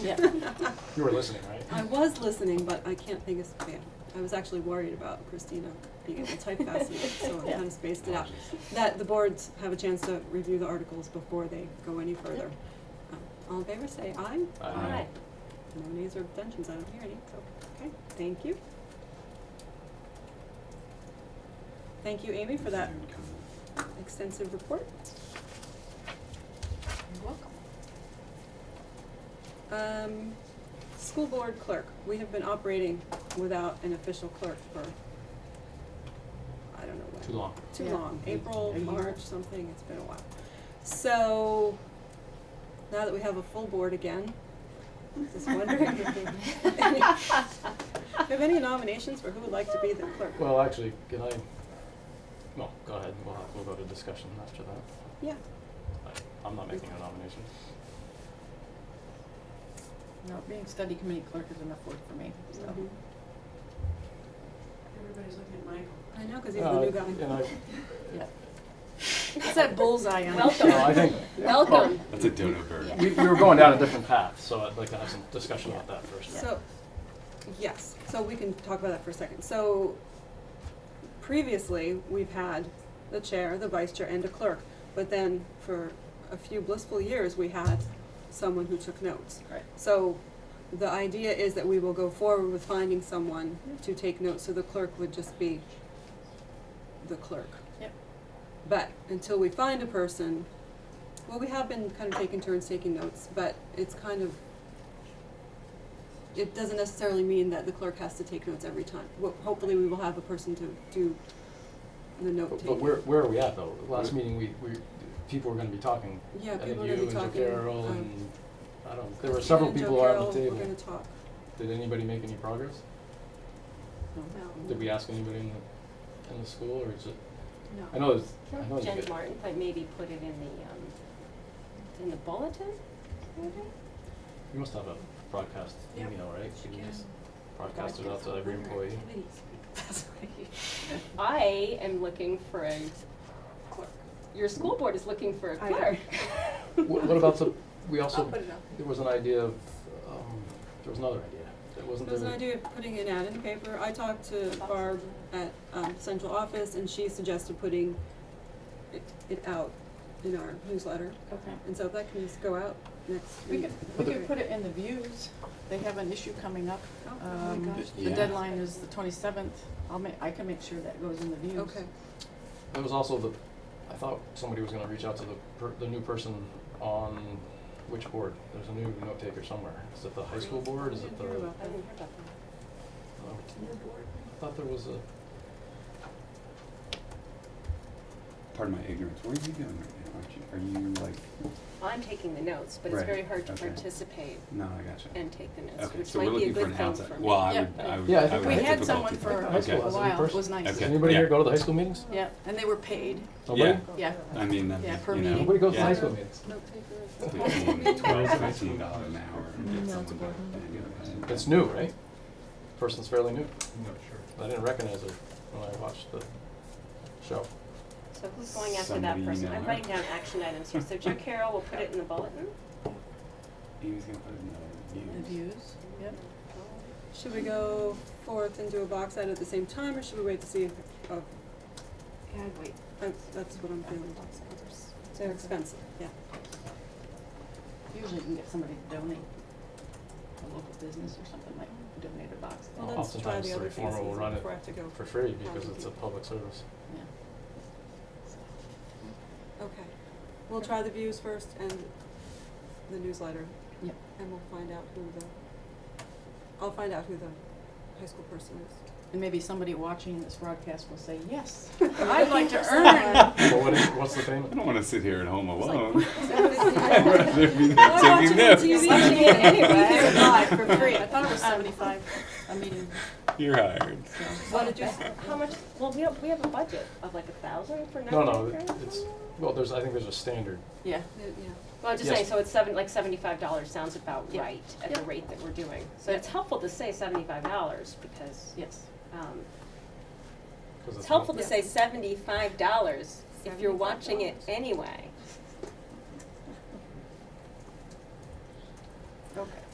You were listening, right? I was listening, but I can't think of, yeah, I was actually worried about Christina being able to type fast enough, so I Yeah. kind of spaced it out. That the boards have a chance to review the articles before they go any further. Um, All in favor, say aye. Aye. Alright. No nays or abstentions, I don't hear any, so, okay, thank you. Thank you, Amy, for Uh, that extensive report. You're welcome. Um, school board clerk, we have been operating without an official clerk for, I don't know what. Too long. Too Yeah. long, A- April, a year. March, something, it's been a while. So, now that we have a full board again, just wondering. Have any nominations for who would like to be the clerk? Well, actually, can I, well, go ahead, we'll, have- we'll go to discussion after that. Yeah, I- I'm not making a nomination. No, being study committee clerk is enough work for me, so. mhm. Mm-hmm. Everybody's looking at Michael. I know, cause he's the new Uh, And I, guy. Yeah. It's that bullseye on. it. Welcome. no, I think, Welcome. That's a dodo bird. Yeah. we, we were going down a different path, so I'd like to have some discussion about that first. So, yes, so we can talk about that for a second. So previously, we've had the chair, the vice chair, and a clerk. But then for a few blissful years, we had someone who took notes. Right. So the idea is that we will go forward with finding someone to take notes, so the clerk would just be the clerk. Yep. But until we find a person, well, we have been kind of taking turns taking notes, but it's kind of, it doesn't necessarily mean that the clerk has to take notes every time. Well, hopefully, we will have a person to do the note But taking. but where, where are we at though? Last meeting, we, we, people were gonna be talking. Yeah, I think Oh, people are gonna be talking, you and Joe Carroll um, and, I don't, there were several And Joe people around the Carroll, table. we're gonna talk. Did anybody make any progress? Did we ask anybody in the, in the school or is it, I know it's, I know Not it's. Jen good. Martin, but maybe put it in the, um, in the bulletin, maybe? You must have a broadcast Yeah, email, right? she You can can. just broadcast it out to every employee. I am looking for a clerk. Your school board is looking for a I know. clerk. What, what about the, we also, put it up. there was an idea of, um, there was another idea. That wasn't There was there. an idea of putting an ad in the paper. I talked to Barb at um, central office, and she suggested putting it, it out in our newsletter. Okay. And so if that can just go out next We week. could, we could put it in the views. They have an issue coming up. Oh, oh my Um, gosh. the Yeah. deadline is the twenty-seventh. I'll ma- I can make sure that goes in the views. Okay. There was also the, I thought somebody was gonna reach out to the per, the new person on which board? There's a new note taker somewhere. Is it the high school board? Is I it didn't the? hear about I didn't hear about that. um, I thought there was a, Pardon my ignorance. What are you doing right now? Aren't you, are you like, I'm taking the notes, but it's Right, very hard to okay. participate no, I gotcha. and take the notes, Okay, which so we're might be a looking for good an thing outside, for me. well, I Yeah. would, I would, Yeah, I I think would We have had someone difficulty. for High school a has a new while. It person? was nice. does Okay, anybody here yeah. go to the high school meetings? Yeah, and they were paid. Nobody? Yeah. I mean, that, Yeah, per you know. Nobody goes to yeah, high school meetings. Note taker. Fifteen, twelve, fifteen dollars an hour. and get someone back there. It's new, right? Person's fairly new. No, sure. I didn't recognize her when I watched the show. So who's going after that Somebody person? email I'm her. writing down action items here. So Joe Carroll will put it in the bulletin. He was gonna put it The in the views. views, yep. Should we go forth and do a box ad at the same time, or should we wait to see if, oh, Yeah, I'd wait. that's, that's what I'm feeling. They're expensive, yeah. Usually you can get somebody to donate, a local business or something like, donate a box. Well, Well, let's try oftentimes the the other reformer pieces will run it before I have to go. for free because it's a public service. Yeah. So, Okay. We'll try the views first and the newsletter, Yep. and we'll find out who the, I'll find out who the high school person is. And maybe somebody watching this broadcast will say, yes, I'd like to earn. Someone. But what is, what's the I payment? don't wanna sit here at home It's like- alone. I'd rather I'm be there watching it on taking notes. TV. Watching it anyway. Here it live for free. I thought it was seventy-five a meeting, You're hired. so. What did you, How much, well, we have, we have a budget of like a thousand for No, note no, takers? it's, well, there's, I think there's a standard. Yeah, yeah, Well, I'm just Yes. saying, so it's seven, like seventy-five dollars sounds about Yeah. right at the rate that we're doing. So it's helpful to say seventy-five dollars because, yes. um, it's 'cause not- helpful to Yeah. say seventy-five dollars if you're watching it $75. anyway.